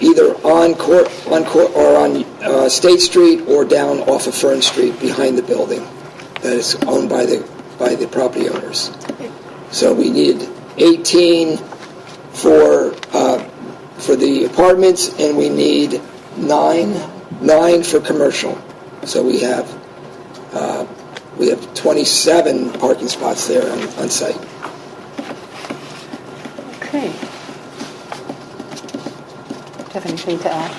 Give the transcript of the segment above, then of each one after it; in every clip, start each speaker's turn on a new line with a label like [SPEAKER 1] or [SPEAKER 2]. [SPEAKER 1] either on Court, on Court, or on uh, State Street or down off of Fern Street behind the building that is owned by the, by the property owners. So we need 18 for, uh, for the apartments, and we need nine, nine for commercial. So we have, uh, we have 27 parking spots there on, on site.
[SPEAKER 2] Okay. Do you have anything to add?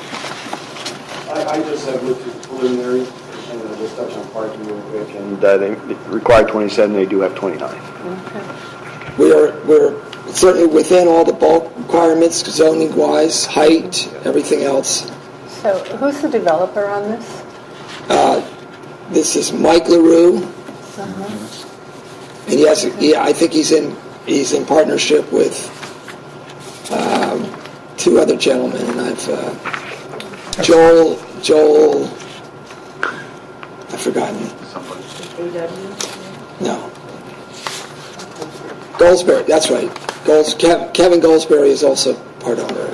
[SPEAKER 3] I, I just have looked at preliminary, and uh, just touch on parking real quick, and uh, they require 27, they do have 29.
[SPEAKER 1] We are, we're certainly within all the bulk requirements, zoning-wise, height, everything else.
[SPEAKER 2] So who's the developer on this?
[SPEAKER 1] This is Mike LaRue,
[SPEAKER 4] Uh-huh.
[SPEAKER 1] and he has, yeah, I think he's in, he's in partnership with um, two other gentlemen, and I've, uh, Joel, Joel, I've forgotten. No. Goldsberry, that's right. Golds, Kev- Kevin Goldsberry is also part owner.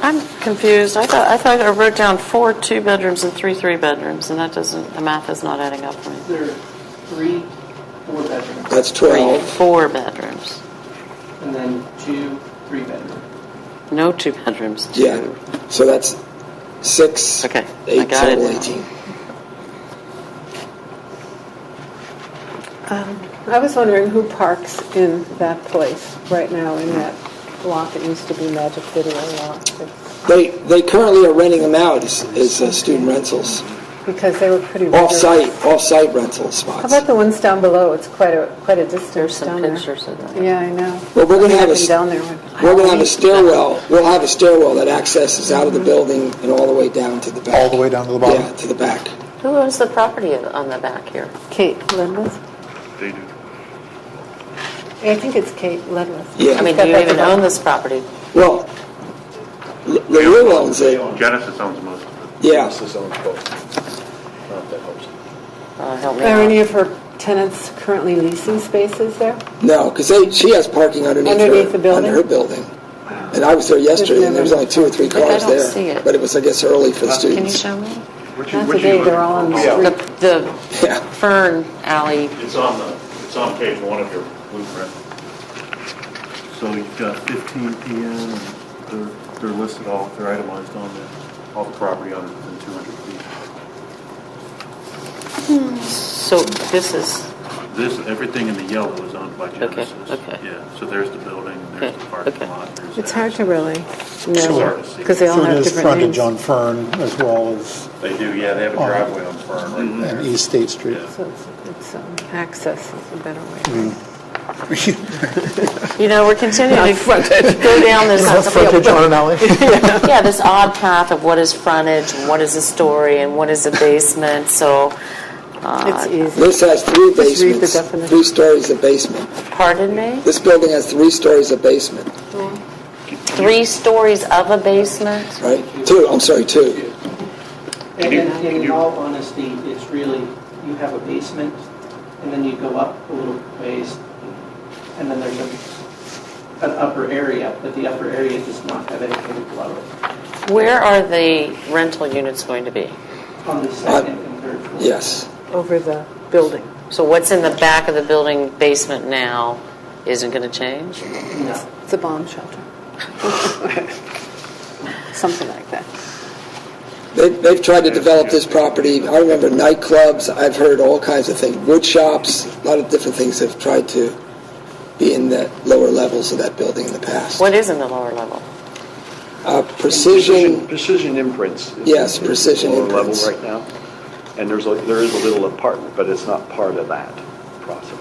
[SPEAKER 4] I'm confused. I thought, I thought I wrote down four two-bedrooms and three three-bedrooms, and that doesn't, the math is not adding up for me.
[SPEAKER 5] There are three four-bedroom,
[SPEAKER 1] That's
[SPEAKER 4] Three,
[SPEAKER 1] 12.
[SPEAKER 4] four bedrooms.
[SPEAKER 5] and then two three-bedroom.
[SPEAKER 4] No two bedrooms,
[SPEAKER 1] Yeah,
[SPEAKER 4] two.
[SPEAKER 1] so that's six.
[SPEAKER 4] Okay, I
[SPEAKER 1] Eight,
[SPEAKER 4] got it
[SPEAKER 1] total
[SPEAKER 4] now.
[SPEAKER 1] 18.
[SPEAKER 2] I was wondering who parks in that place right now in that lot that used to be Magic Video Lot? It's-
[SPEAKER 1] They, they currently are renting them out as, as uh, student rentals,
[SPEAKER 2] Because they were pretty. rigorous.
[SPEAKER 1] off-site, off-site rental
[SPEAKER 2] How
[SPEAKER 1] spots.
[SPEAKER 2] about the ones down below? It's quite a, quite a
[SPEAKER 4] There's
[SPEAKER 2] distance down
[SPEAKER 4] some
[SPEAKER 2] there.
[SPEAKER 4] pictures of that.
[SPEAKER 2] Yeah, I know.
[SPEAKER 1] Well, we're gonna
[SPEAKER 2] I
[SPEAKER 1] have a
[SPEAKER 2] been
[SPEAKER 1] s-
[SPEAKER 2] down there. when-
[SPEAKER 1] We're going to have a stairwell, we'll have a stairwell that accesses out of the building and all the way down to the back.
[SPEAKER 6] All the way down to the bottom?
[SPEAKER 1] Yeah, to the back.
[SPEAKER 4] Who owns the property on the back here?
[SPEAKER 2] Kate Ledwith?
[SPEAKER 7] They do.
[SPEAKER 2] I think it's Kate Ledwith.
[SPEAKER 1] Yeah.
[SPEAKER 4] I mean, do you even own this property?
[SPEAKER 1] Well, L- LaRue owns it,
[SPEAKER 7] Genesis owns most of it.
[SPEAKER 1] yeah.
[SPEAKER 3] This is on both. Not if that helps.
[SPEAKER 4] Uh, help me
[SPEAKER 2] Are
[SPEAKER 4] out.
[SPEAKER 2] any of her tenants currently leasing spaces there?
[SPEAKER 1] No, because she has parking underneath her.
[SPEAKER 2] Underneath the building?
[SPEAKER 1] Under her building. And I was there yesterday, and there was only two or three
[SPEAKER 4] But I
[SPEAKER 1] cars
[SPEAKER 4] don't
[SPEAKER 1] there.
[SPEAKER 4] see it.
[SPEAKER 1] But it was, I guess, early for the
[SPEAKER 4] Can you
[SPEAKER 1] students.
[SPEAKER 4] show me?
[SPEAKER 7] Which
[SPEAKER 2] Not
[SPEAKER 7] which
[SPEAKER 2] today, they're
[SPEAKER 7] look-
[SPEAKER 2] all on the
[SPEAKER 7] Yeah.
[SPEAKER 2] street.
[SPEAKER 4] The, the
[SPEAKER 1] Yeah,
[SPEAKER 4] Fern Alley,
[SPEAKER 7] It's on the, it's on page one of your blueprint. So you've got 15 PM, and they're, they're listed all, they're itemized on there, all the property owners within 200 feet.
[SPEAKER 4] so this is,
[SPEAKER 7] This, everything in the yellow is owned by Genesis.
[SPEAKER 4] okay.
[SPEAKER 7] Yeah, so there's the building, there's the
[SPEAKER 4] Okay,
[SPEAKER 7] parking
[SPEAKER 4] okay.
[SPEAKER 7] lot. there's
[SPEAKER 2] It's
[SPEAKER 7] that.
[SPEAKER 2] hard to really know,
[SPEAKER 7] Sure.
[SPEAKER 2] because they all
[SPEAKER 6] So it
[SPEAKER 2] have
[SPEAKER 6] is
[SPEAKER 2] different names.
[SPEAKER 6] frontage on Fern as well as
[SPEAKER 7] They do, yeah, they have a
[SPEAKER 6] Oh.
[SPEAKER 7] driveway on
[SPEAKER 2] Mm-hmm.
[SPEAKER 7] Fern right
[SPEAKER 6] and
[SPEAKER 7] there.
[SPEAKER 6] East State Street.
[SPEAKER 7] Yeah.
[SPEAKER 2] So it's- it's, um, access is a better way.
[SPEAKER 4] you know, we're continuing to go down this.
[SPEAKER 6] on an alley?
[SPEAKER 4] yeah, this odd path of what is frontage and what is a story and what is a basement. So,
[SPEAKER 2] It's
[SPEAKER 4] uh,
[SPEAKER 2] easy.
[SPEAKER 1] this has three
[SPEAKER 2] read the
[SPEAKER 1] basements,
[SPEAKER 2] definition.
[SPEAKER 1] three stories of basement.
[SPEAKER 4] pardon me?
[SPEAKER 1] This building has three stories of basement,
[SPEAKER 4] Three stories of a basement?
[SPEAKER 1] right? Two, I'm sorry, two.
[SPEAKER 5] And
[SPEAKER 7] you-
[SPEAKER 5] then,
[SPEAKER 7] can
[SPEAKER 5] in
[SPEAKER 7] you-
[SPEAKER 5] all honesty, it's really, you have a basement, and then you go up a little ways, and then there's a, an upper area, but the upper area does not have anything below it.
[SPEAKER 4] Where are the rental units going to be?
[SPEAKER 5] On the second and third floor.
[SPEAKER 1] Yes,
[SPEAKER 2] Over the building.
[SPEAKER 4] So, what's in the back of the building basement now isn't going to change?
[SPEAKER 5] No.
[SPEAKER 2] It's a bomb shelter. Something like that.
[SPEAKER 1] they've, they've tried to develop this property. I remember nightclubs. I've heard all kinds of things. Wood shops, a lot of different things have tried to be in the lower levels of that building in the past.
[SPEAKER 4] What is in the lower level?
[SPEAKER 1] Uh, precision.
[SPEAKER 3] Precision imprints. is-
[SPEAKER 1] Yes,
[SPEAKER 3] is
[SPEAKER 1] Precision
[SPEAKER 3] lower level
[SPEAKER 1] Imprints.
[SPEAKER 3] Right now, and there's, a there is a little apartment, but it's not part of that process.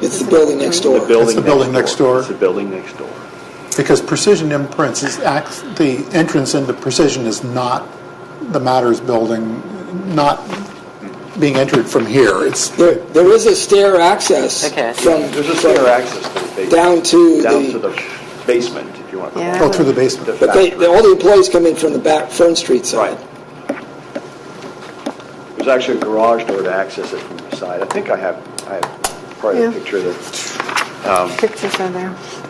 [SPEAKER 1] It's the building next door.
[SPEAKER 3] The building
[SPEAKER 6] It's the building next door.
[SPEAKER 3] It's the building next door.
[SPEAKER 6] Because Precision Imprints is, act- the entrance into Precision is not the Matters Building, not being entered from here. It's,
[SPEAKER 1] There, there is a stair access
[SPEAKER 4] Okay.
[SPEAKER 1] from,
[SPEAKER 3] There's a
[SPEAKER 1] from
[SPEAKER 3] stair access to the basement.
[SPEAKER 1] down to
[SPEAKER 3] Down
[SPEAKER 1] the-
[SPEAKER 3] to the basement, if you want to call it.
[SPEAKER 2] Yeah.
[SPEAKER 6] oh, through the
[SPEAKER 3] The
[SPEAKER 6] basement.
[SPEAKER 1] but they,
[SPEAKER 3] factory.
[SPEAKER 1] they- all the employees come in from the back Fern Street side.
[SPEAKER 3] Right. There's actually a garage door to access it from the side. I think I have, I have probably
[SPEAKER 2] Yeah.
[SPEAKER 3] a picture of that.
[SPEAKER 2] Pictures are there.